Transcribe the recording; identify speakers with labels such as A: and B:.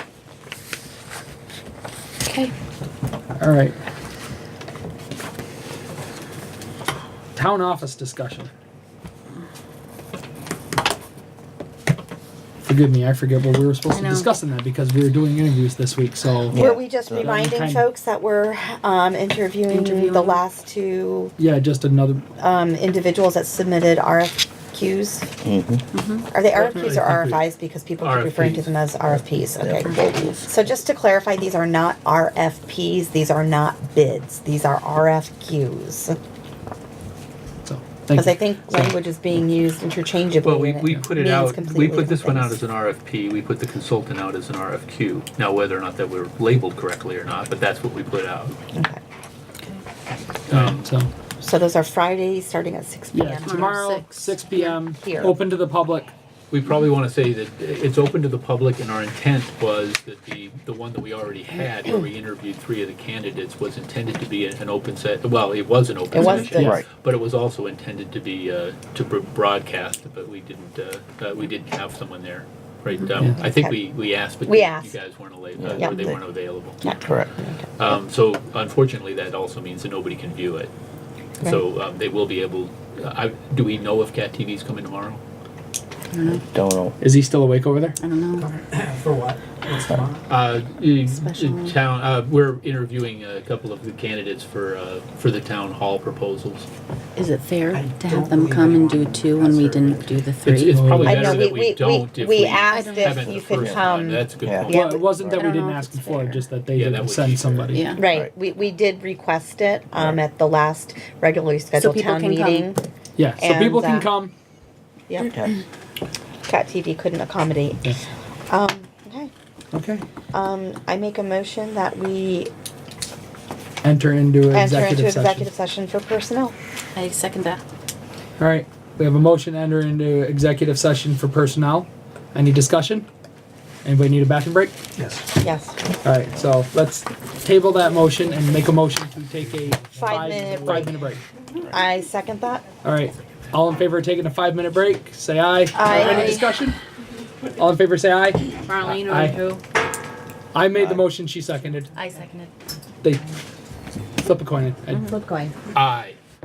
A: Okay.
B: All right. Town office discussion. Forgive me, I forget what we were supposed
A: I
B: to
A: know.
B: discuss in that because we were doing interviews this week, so.
C: Were we just
D: so-
C: reminding
B: Kind-
C: folks that we're um, interviewing
A: Interviewing.
C: the last two
B: Yeah, just another,
C: um, individuals that submitted RFQs?
D: Mm-hmm.
C: Mm-hmm. Are they RFQs or
B: Definitely.
C: RFIs? Because people keep referring to
E: RFPs.
C: them as RFPs,
D: From
C: okay.
D: Bold Wolf.
C: So just to clarify, these are not RFPs, these are not bids, these are RFQs.
B: so, thank
C: Because I
B: you.
C: think language is being used interchangeably.
E: Well, we,
C: and
E: we put it
C: means
E: out, we
C: completely
E: put this one
C: different
E: out as
C: things.
E: an RFP, we put the consultant out as an RFQ. Now, whether or not that we're labeled correctly or not, but that's what we put out.
C: Okay.
E: Um,
B: So,
C: So those are Fridays, starting at six
B: yeah,
C: PM.
B: tomorrow,
A: six.
B: six P M,
C: Here.
B: open to the public.
E: We probably want to say that it's open to the public, and our intent was that the, the one that we already had, where we interviewed three of the candidates, was intended to be an open set, well, it was an open
C: It was
E: session.
C: the-
D: Right.
E: But it was also intended to be, uh, to br- broadcast, but we didn't, uh, uh, we didn't have someone there. Right, um, I think we, we asked, but
C: Mm-hmm. We
E: you
C: asked.
E: you guys weren't available,
C: Yeah.
E: or they weren't available.
C: Yeah.
D: Correct.
E: Um, so unfortunately, that also means that nobody can view it. So um, they will be able, uh, I, do we know if Cat TV's coming tomorrow?
D: Don't know.
B: Is he still awake over there?
A: I don't know.
F: For what? What's tomorrow?
E: Uh, y-
A: Special-
E: town, uh, we're interviewing a couple of the candidates for, uh, for the town hall proposals.
A: Is it fair
F: I
A: to
F: don't
A: have them
F: believe
A: come and do
F: anyone
A: two when we
F: has their-
A: didn't do the
E: It's,
A: three?
E: it's probably
C: I
E: better
C: know, we,
E: that we
C: we,
E: don't
C: we,
E: if
C: we
E: we
C: asked
E: haven't
C: if
E: the
C: you could
E: first time.
C: come.
E: That's a good
D: Yeah.
E: point.
C: Yeah.
B: Well, it wasn't that
A: I
B: we
A: don't know
B: didn't
A: if
B: ask
A: it's
B: before,
A: fair.
B: just that they
E: Yeah, that
B: didn't
E: would be
B: send
E: fair.
B: somebody.
A: Yeah.
C: Right,
D: Right.
C: we, we did request it, um, at the last regularly scheduled
A: people
C: town
A: can come.
C: meeting.
B: Yeah, so
C: And,
B: people can
C: uh,
B: come.
C: Yep,
D: Yeah.
C: Cat TV couldn't accommodate.
B: Yeah.
C: Um, okay,
B: Okay.
C: um, I make a motion that we
B: Enter into
C: enter into
B: executive session.
C: executive session for personnel.
A: I second that.
B: All right, we have a motion to enter into executive session for personnel. Any discussion? Anybody need a bathroom break?
F: Yes.
C: Yes,
B: All right, so let's table that motion and make a motion to take a
C: minute
B: five,
C: break.
B: five minute break.
C: I second that.
B: All right, all in favor of taking a five minute break, say aye.
C: Aye.
B: Any discussion? All in favor, say aye.
A: Marlene
B: Aye.
A: or who?
B: I made the motion, she seconded.
A: I seconded.
B: They flip a coin. I-
A: Flip coin.
E: Aye.